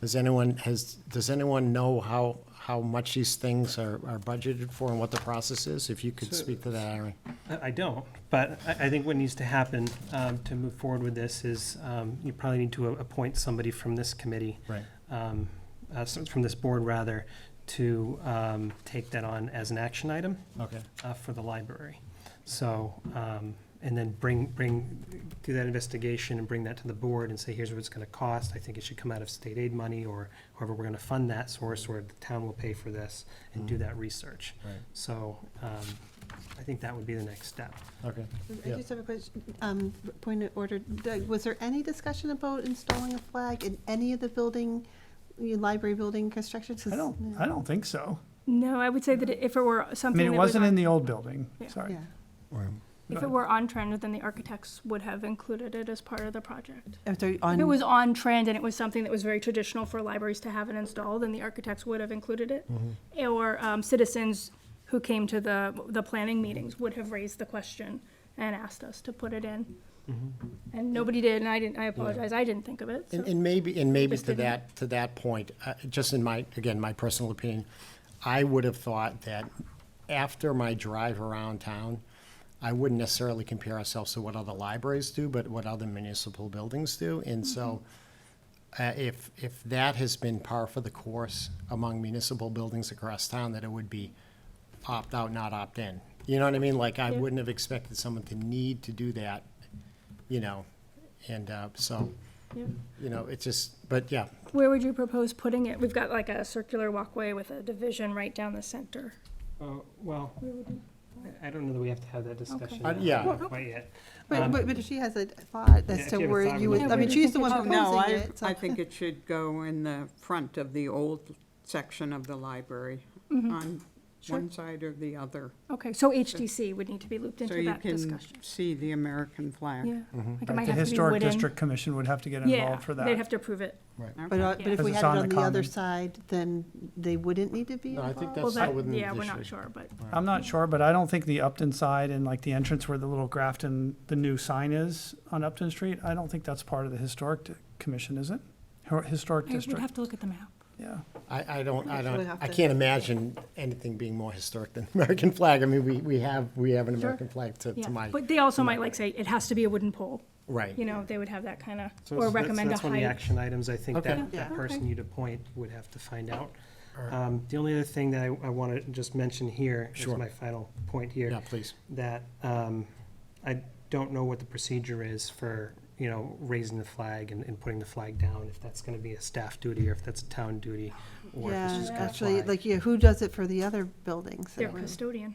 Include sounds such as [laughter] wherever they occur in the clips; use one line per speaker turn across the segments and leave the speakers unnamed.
Does anyone, has, does anyone know how, how much these things are, are budgeted for and what the process is? If you could speak to that, Aaron.
Uh, I I don't, but I, I think what needs to happen um, to move forward with this is um, you probably need to a- appoint somebody from this committee,
Right.
um, uh, so- from this board rather, to um, take that on as an action item
Okay.
uh, for the library. So, um, and then bring, bring, do that investigation and bring that to the board and say, here's what it's gonna cost. I think it should come out of state aid money or however we're gonna fund that source or the town will pay for this and do that research.
Right,
So, um, I think that would be the next step.
okay.
I
Yeah.
just have a question, um, point of order. Doug, Was there any discussion about installing a flag in any of the building, the library building constructions? 'Cause-
I don't, I don't think so.
No, I would say that if it were
I
something
mean, it
that was
wasn't in
on,
the old building,
Yeah.
sorry.
Yeah.
if it were on trend, then the architects would have included it as part of the project.
If they're
If it
Mm.
on,
was on trend and it was something that was very traditional for libraries to have it installed, then the architects would have included it.
Mm-hmm.
Or um, citizens who came to the, the planning meetings would have raised the question and asked us to put it in.
Mm-hmm.
And nobody did, and I didn't, I apologize, I didn't think of it, so.
And, and maybe, and maybe
Just
to
didn't-
that, to that point, uh, just in my, again, my personal opinion, I would have thought that after my drive around town, I wouldn't necessarily compare ourselves to what other libraries do, but what other municipal buildings do. And so uh, if, if that has been par for the course among municipal buildings across town, that it would be opt out, not opt in. You know what I mean? Like, I
Yeah.
wouldn't have expected someone to need to do that, you know? And uh, so,
yeah.
you know, it's just, but yeah,
Where would you propose putting it? We've got like a circular walkway with a division right down the center.
Uh, Well, I don't know that we have to have that
discussion
discussion.
Uh, yeah. now,
Quite yet.
but, but but if she has a thought
Yeah,
as
if
to
you have a
where
thought,
you
we
would,
can-
I mean, she's the one
Oh, no,
proposing
I,
it. so- [laughs]
I think it should go in the front of the old section of the library,
Mm-hmm.
on one side or the other.
Okay, so HDC would need to be looped
So
into
you
that
can
discussion.
see the American flag.
Yeah. Like
Right,
it might
The
have to be
Historic
wooden.
District Commission would have to get
Yeah,
involved for
they'd
that.
have to approve it.
But, uh,
Okay.
but if
Because
we
it's
had it
on the
on the other
common.
side, then they wouldn't need to be
No, I think that's-
involved?
Well,
not
that,
within the
yeah, we're not
district.
sure, but
I'm not sure, but I don't think the Upton side and like the entrance where the little Grafton, the new sign is on Upton Street, I don't think that's part of the Historic Di- Commission, is it? Hor- Historic
I would
District,
have to look at the map.
yeah.
I, I don't, I
We'll
don't,
have
I
to-
can't imagine anything being more historic than [laughs] the American flag. I mean, we, we have, we have an American flag to, to
Yeah,
my,
but they also might like say it has to be a wooden pole.
right.
You know, they would have that kind of,
So
or
that's-
recommend a
That's one of the
height.
action items, I think
Okay.
that, that
Yeah.
person
Okay.
you'd appoint would have to find out.
All right.
Um, The only other thing that I, I want to just mention here is
Sure.
my final point here.
Yeah, please.
that um, I don't know what the procedure is for, you know, raising the flag and, and putting the flag down, if that's gonna be a staff duty or if that's a town duty, or if it's
Yeah,
just gonna
actually,
fly.
like, yeah, who does it for the other buildings?
They're custodian.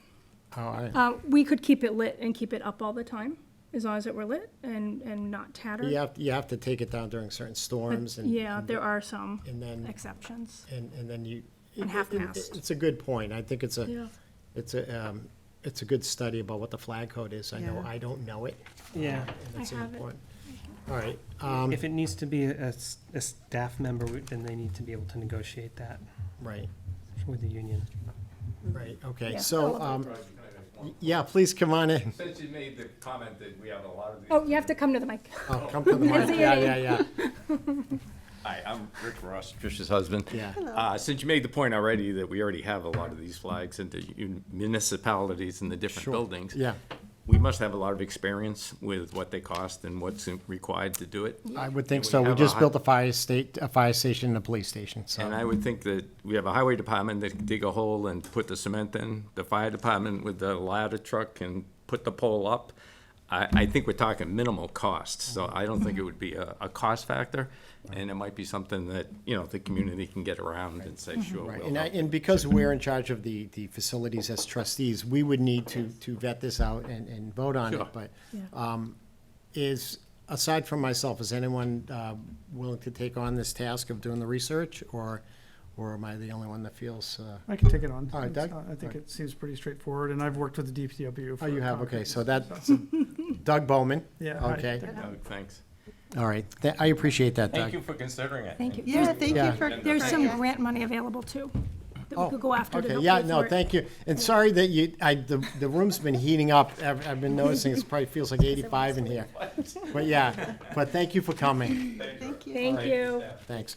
Oh, I,
Uh, we could keep it lit and keep it up all the time, as long as it were lit and, and not tattered.
you have, you have to take it down during certain
But
storms and.
Yeah,
and-
there are some
And then,
exceptions.
and, and then you.
And
it-
half-mast.
it- It's a good point. I think it's a,
Yeah.
it's a, um, it's a good study about what the flag code is. I know,
Yeah.
I don't know it.
Yeah,
and that's an
have it.
important- All right, um,
if it needs to be a, s- a staff member, we- then they need to be able to negotiate that
right.
with the union.
Right, okay,
Yeah. Oh,
so, um,
Can I make one?
yeah, please come on in.
Since you made the comment that we have a lot of these.
Oh, you have to come to the mic.
Oh, come to the mic, yeah, yeah, yeah,
Hi, I'm Rick Ross, Trish's husband.
yeah.
Uh, since you made the point already that we already have a lot of these flags in the un- municipalities and the different buildings.
Yeah,
We must have a lot of experience with what they cost and what's in- required to do it.
I would think
And we
so. We
have a
just
hot-
built a fire state, a fire station and a police station,
And
so.
I would think that we have a highway department that can dig a hole and put the cement in, the fire department with the ladder truck and put the pole up. I, I think we're talking minimal costs, so I don't think it would be a, a cost factor. And it might be something that, you know, the community can get around and say, sure,
Right,
we'll
and I,
help.
and because we're in charge of the, the facilities as trustees, we would need to, to vet this out and, and vote on it,
Sure.
but um,
Yeah.
is, aside from myself, is anyone, uh, willing to take on this task of doing the research, or, or am I the only one that feels, uh?
I can take it on.
All right,
It's
Doug?
not- I
All right.
think it seems pretty straightforward, and I've worked with the DPW for.
Oh, you have, okay,
concrete,
so that, Doug Bowman,
Yeah. hi,
okay,
Doug.
Doug, Thanks.
all right, Th- I appreciate that, Doug.
Thank you for considering it.
Thank you.
Yeah, thank you
Yeah.
for.
There's
for-
some
yeah.
grant money available too, that
Oh,
we could go after to
Okay,
help
yeah,
pay for
no,
it.
thank you. And sorry that you, I, the, the room's been heating up. I've, I've been noticing it probably feels
[laughs]
like eighty-five in here. But yeah, but thank you for coming.
Thank you.
Thank you.
Thanks.